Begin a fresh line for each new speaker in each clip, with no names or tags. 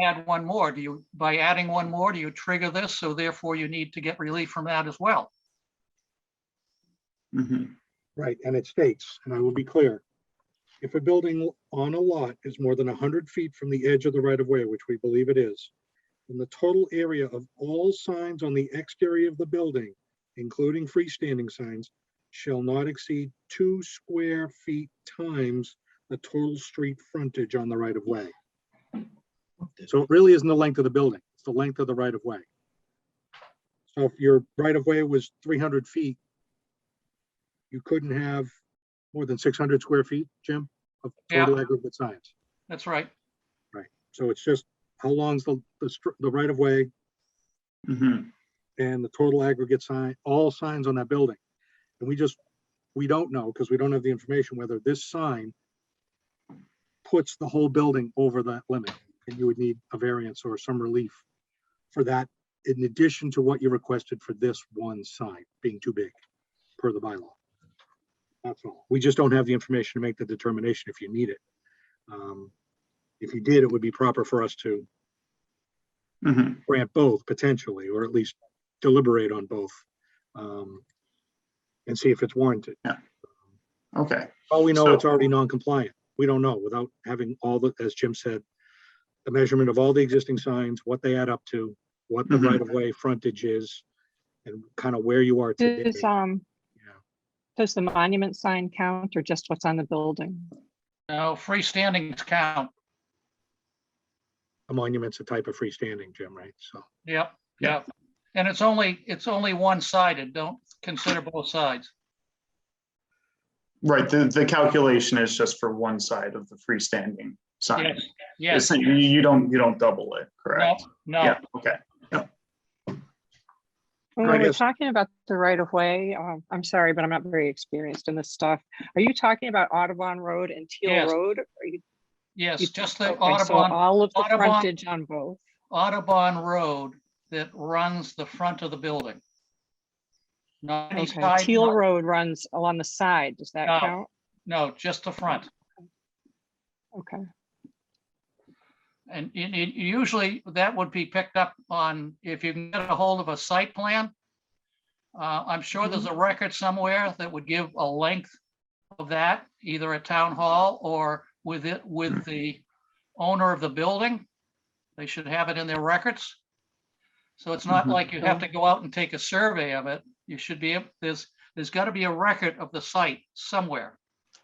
add one more? Do you, by adding one more, do you trigger this? So therefore you need to get relief from that as well.
Mhm.
Right, and it states, and I will be clear. If a building on a lot is more than hundred feet from the edge of the right of way, which we believe it is, then the total area of all signs on the exterior of the building, including freestanding signs, shall not exceed two square feet times the total street frontage on the right of way. So it really isn't the length of the building, it's the length of the right of way. So if your right of way was three hundred feet, you couldn't have more than six hundred square feet, Jim, of
Yeah.
total aggregate signs.
That's right.
So it's just how long's the, the, str- the right of way
Mhm.
and the total aggregate sign, all signs on that building. And we just, we don't know because we don't have the information whether this sign puts the whole building over that limit and you would need a variance or some relief for that in addition to what you requested for this one sign being too big per the bylaw. That's all. We just don't have the information to make the determination if you need it. Um, If you did, it would be proper for us to
Mhm.
grant both potentially, or at least deliberate on both. um, And see if it's warranted.
Okay,
All we know, it's
So-
already non-compliant. We don't know without having all the, as Jim said, the measurement of all the existing signs, what they add up to, what the
Mhm.
right-of-way frontage is, and kind of where you are today.
Does, um,
Yeah.
does the monument sign count or just what's on the building?
Now freestandings count.
A monument's a type of freestanding, Jim, right? So,
Yep, yep. And it's only, it's only one-sided. Don't consider both sides.
right, the, the calculation is just for one side of the freestanding sign.
Yes, yes.
It's- You, you don't, you don't double it,
No,
correct?
no.
Yeah, okay.
When
Right,
we we're
yes.
talking about the right of way, um, I'm sorry, but I'm not very experienced in this stuff. Are you talking about Audubon Road and Teal
Yes.
Road? Are you-
Yes,
you-
just the
okay, so
Audubon,
All of the
Audubon-
frontage on both.
Audubon Road that runs the front of the building. Not any
Okay,
side,
Teal
not-
Road runs along the side. Does that
No.
count?
no, just the front.
Okay,
And it, it- usually that would be picked up on, if you can get a hold of a site plan. Uh, I'm sure there's a record somewhere that would give a length of that, either at town hall or with it, with the owner of the building. They should have it in their records. So it's not
Mhm.
like you have to go out and take a survey of it. You should be, ab- there's, there's got to be a record of the site somewhere.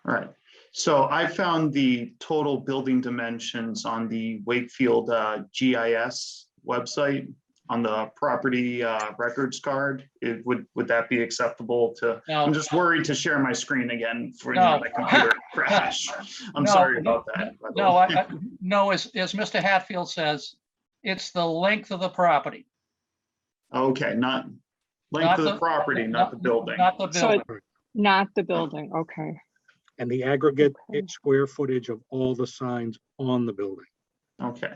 All right, so I found the total building dimensions on the Wakefield uh, GIS website on the property uh, records card. It would, would that be acceptable to,
Now,
I'm just worried to share my screen again for you
No.
know, my computer crash. I'm
No,
sorry about that. by the
No,
way.
I, I- no, as, as Mr. Hatfield says, it's the length of the property.
Okay, not
Not
length of the
the-
property, not the building.
Not the
So
building.
not the building. Okay,
and the aggregate
Okay.
square footage of all the signs on the building.
Okay,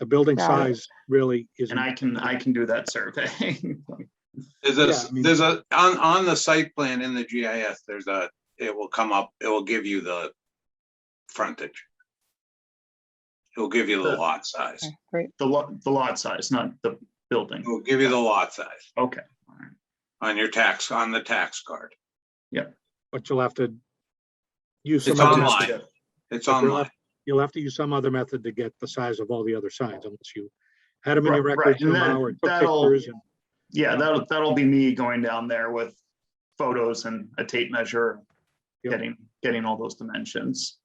The building
Got it.
size really isn't.
and I can, I can do that survey.
There's
Yeah,
a,
I mean-
there's a, on, on the site plan in the GIS, there's a, it will come up, it will give you the frontage. It'll give you the
Sure.
lot size.
okay, great.
The lot, the lot size, not the building.
It'll give you the lot size
Okay.
on your tax, on the tax card.
but you'll have to use some,
It's
other-
online.
But
It's
you'll
Um,
online.
have- you'll have to use some other method to get the size of all the other signs unless you had them in your
Right, right,
records
and that-
somehow or took
that'll-
pictures. and-
Yeah, that'll, that'll be me going down there with photos and a tape measure,
Yep.
getting, getting all those dimensions.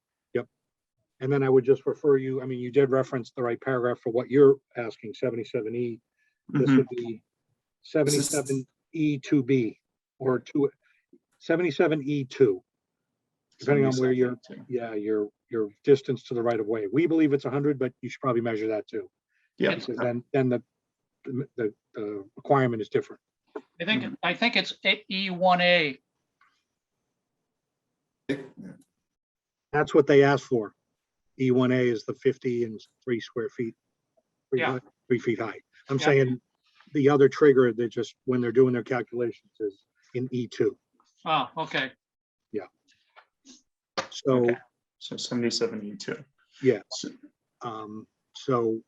And then I would just refer you, I mean, you did reference the right paragraph for what you're asking, seventy-seven E. This
Mhm.
would be seventy-seven E two B or two, seventy-seven E two. Depending on where you're, yeah, your, your distance to the right of way. We believe it's hundred, but you should probably measure that too.
Yeah,
because Then, then the, the, the requirement is different.
I think, I think it's E one A.
That's what they asked for. E one A is the fifty and three square feet. three
Yeah.
high- Three feet high. I'm
Yeah.
saying the other trigger, they just, when they're doing their calculations is in E two.
Oh, okay.
So,
Okay. so seventy-seven E two.
Yeah.
So-
um, So